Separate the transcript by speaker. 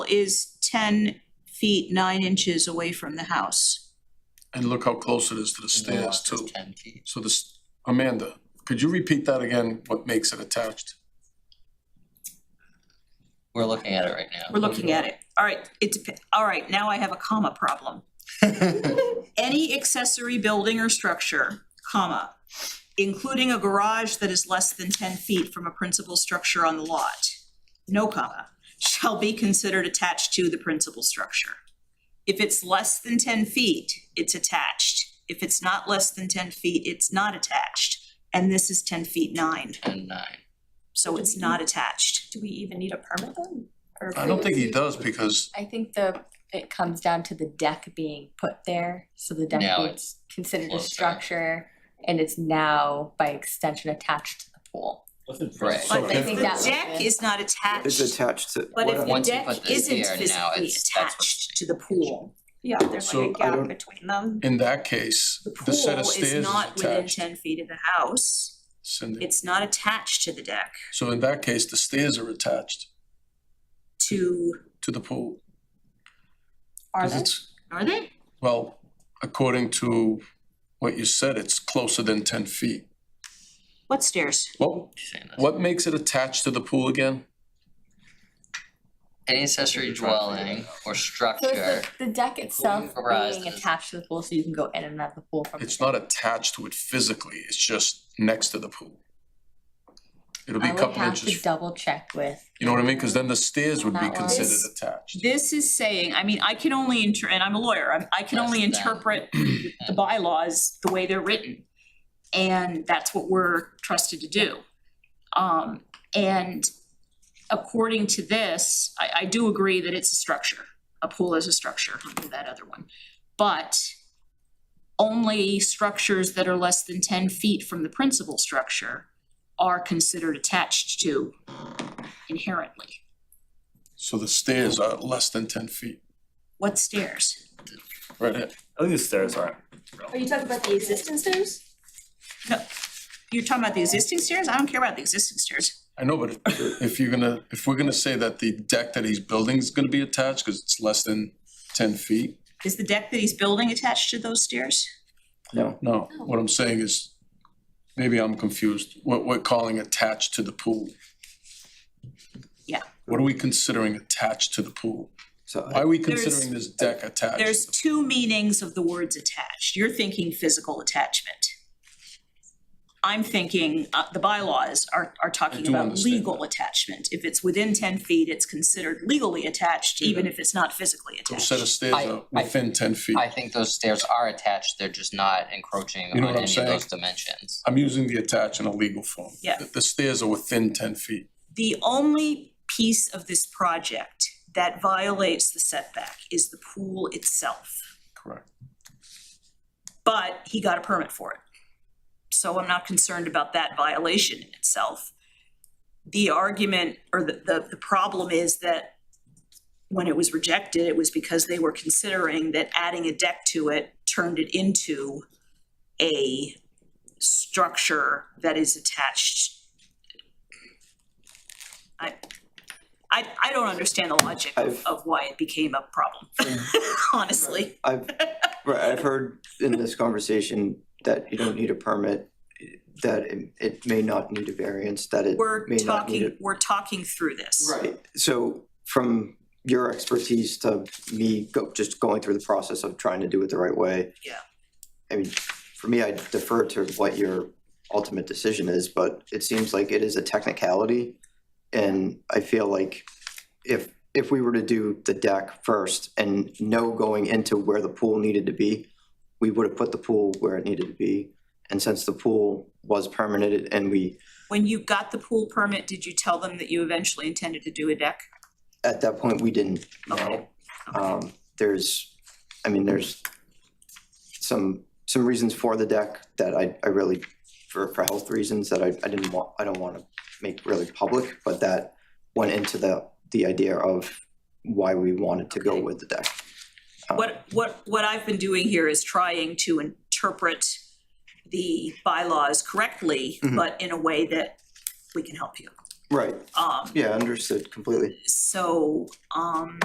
Speaker 1: is ten feet nine inches away from the house.
Speaker 2: And look how close it is to the stairs
Speaker 3: Lock is
Speaker 2: too.
Speaker 3: Ten feet.
Speaker 2: So this, Amanda, could you repeat that again, what makes it attached?
Speaker 3: We're looking at it right now.
Speaker 1: We're looking at it. All right, it's, all right, now I have a comma problem. Any accessory building or structure, comma, including a garage that is less than ten feet from a principal structure on the lot, no comma, shall be considered attached to the principal structure. If it's less than ten feet, it's attached. If it's not less than ten feet, it's not attached. And this is ten feet nine,
Speaker 3: Ten nine.
Speaker 1: so it's not attached.
Speaker 4: Do we even need a permit then? Or-
Speaker 2: I don't think he does because,
Speaker 5: I think the, it comes down to the deck being put there, so the deck
Speaker 3: Now
Speaker 5: was considered a
Speaker 3: closer.
Speaker 5: structure and it's now by extension attached to the pool.
Speaker 3: Right.
Speaker 1: But
Speaker 2: So
Speaker 1: if the
Speaker 5: if that-
Speaker 1: deck is not
Speaker 6: It's
Speaker 1: attached,
Speaker 6: attached to.
Speaker 1: but if the
Speaker 3: Once you
Speaker 1: deck
Speaker 3: put this
Speaker 1: isn't
Speaker 3: here, now
Speaker 1: physically
Speaker 3: it's- that's
Speaker 1: attached to the pool,
Speaker 4: Yeah, there's
Speaker 2: So, I
Speaker 4: like a gap
Speaker 6: don't-
Speaker 4: between them.
Speaker 2: in that case,
Speaker 1: the
Speaker 2: the
Speaker 1: pool
Speaker 2: set of stairs
Speaker 1: is
Speaker 2: is
Speaker 1: not within
Speaker 2: attached.
Speaker 1: ten feet of the house.
Speaker 2: Cindy.
Speaker 1: It's not attached to the deck,
Speaker 2: So in that case, the stairs are attached
Speaker 1: to,
Speaker 2: to the pool.
Speaker 4: Are
Speaker 2: 'Cause
Speaker 4: they?
Speaker 2: it's-
Speaker 1: are they?
Speaker 2: Well, according to what you said, it's closer than ten feet.
Speaker 1: What stairs?
Speaker 2: Well,
Speaker 3: She's saying this.
Speaker 2: what makes it attached to the pool again?
Speaker 3: Any accessory dwelling or
Speaker 5: So it's
Speaker 3: structure,
Speaker 5: the, the deck itself
Speaker 3: garage
Speaker 5: being
Speaker 3: is-
Speaker 5: attached to the pool, so you can go in and out of the pool from the
Speaker 2: It's
Speaker 5: deck.
Speaker 2: not attached to it physically, it's just next to the pool. It'll be
Speaker 5: I
Speaker 2: a
Speaker 5: would
Speaker 2: couple
Speaker 5: have to
Speaker 2: inches,
Speaker 5: double check with,
Speaker 2: you know what I mean? Cause then the stairs would be
Speaker 5: That one.
Speaker 2: considered
Speaker 1: This-
Speaker 2: attached.
Speaker 1: This is saying, I mean, I can only inter, and I'm a lawyer, I'm, I can only
Speaker 3: Less than.
Speaker 1: interpret the bylaws the way they're written. And that's what we're trusted to do. Um, and according to this, I, I do agree that it's a structure. A pool is a structure under that other one. But only structures that are less than ten feet from the principal structure are considered attached to inherently.
Speaker 2: So the stairs are less than ten feet,
Speaker 1: What stairs?
Speaker 2: right here.
Speaker 7: I think the stairs aren't.
Speaker 4: Are you talking about the existing stairs?
Speaker 1: You're talking about the existing stairs? I don't care about the existing stairs.
Speaker 2: I know, but if- if you're gonna, if we're gonna say that the deck that he's building is gonna be attached, cause it's less than ten feet.
Speaker 1: Is the deck that he's building attached to those stairs?
Speaker 6: No.
Speaker 2: No, what I'm saying is, maybe I'm confused, what we're calling attached to the pool.
Speaker 1: Yeah.
Speaker 2: What are we considering attached to the pool?
Speaker 6: So
Speaker 2: Why are we
Speaker 1: There's-
Speaker 2: considering this deck attached?
Speaker 1: There's two meanings of the words attached. You're thinking physical attachment. I'm thinking, uh, the bylaws are, are talking
Speaker 2: do
Speaker 1: about
Speaker 2: understand
Speaker 1: legal attachment. If it's within ten feet, it's considered legally attached, even if it's not physically
Speaker 2: Those
Speaker 1: attached.
Speaker 2: set of stairs
Speaker 3: I-
Speaker 2: are
Speaker 3: I-
Speaker 2: within ten feet.
Speaker 3: I think those stairs are attached, they're just not encroaching
Speaker 2: You know what
Speaker 3: on
Speaker 2: I'm
Speaker 3: any of
Speaker 2: saying?
Speaker 3: those dimensions.
Speaker 2: I'm using the attached in a legal form.
Speaker 1: Yeah.
Speaker 2: The- The stairs are within ten feet.
Speaker 1: The only piece of this project that violates the setback is the pool itself.
Speaker 2: Correct.
Speaker 1: but he got a permit for it. So I'm not concerned about that violation in itself. The argument or the, the, the problem is that when it was rejected, it was because they were considering that adding a deck to it turned it into a structure that is attached. I, I, I don't understand the logic of,
Speaker 6: I've-
Speaker 1: of why it became a problem, honestly.
Speaker 6: I've, right, I've heard in this conversation that you don't need a permit, that it, it may not need a variance, that it
Speaker 1: We're
Speaker 6: may not need
Speaker 1: talking,
Speaker 6: it.
Speaker 1: we're talking through this.
Speaker 6: Right, so from your expertise to me go, just going through the process of trying to do it the right way.
Speaker 1: Yeah.
Speaker 6: I mean, for me, I defer to what your ultimate decision is, but it seems like it is a technicality. And I feel like if, if we were to do the deck first and know going into where the pool needed to be, we would have put the pool where it needed to be. And since the pool was permitted and we,
Speaker 1: When you got the pool permit, did you tell them that you eventually intended to do a deck?
Speaker 6: at that point, we didn't know.
Speaker 1: Okay.
Speaker 6: Um, there's, I mean, there's some, some reasons for the deck that I, I really, for, for health reasons that I, I didn't want, I don't want to make really public, but that went into the, the idea of why we wanted to go
Speaker 1: Okay.
Speaker 6: with the deck. Uh,
Speaker 1: What, what, what I've been doing here is trying to interpret the bylaws correctly,
Speaker 6: Mhm.
Speaker 1: but in a way that we can help you.
Speaker 6: Right,
Speaker 1: Um,
Speaker 6: yeah, understood completely.
Speaker 1: so, um,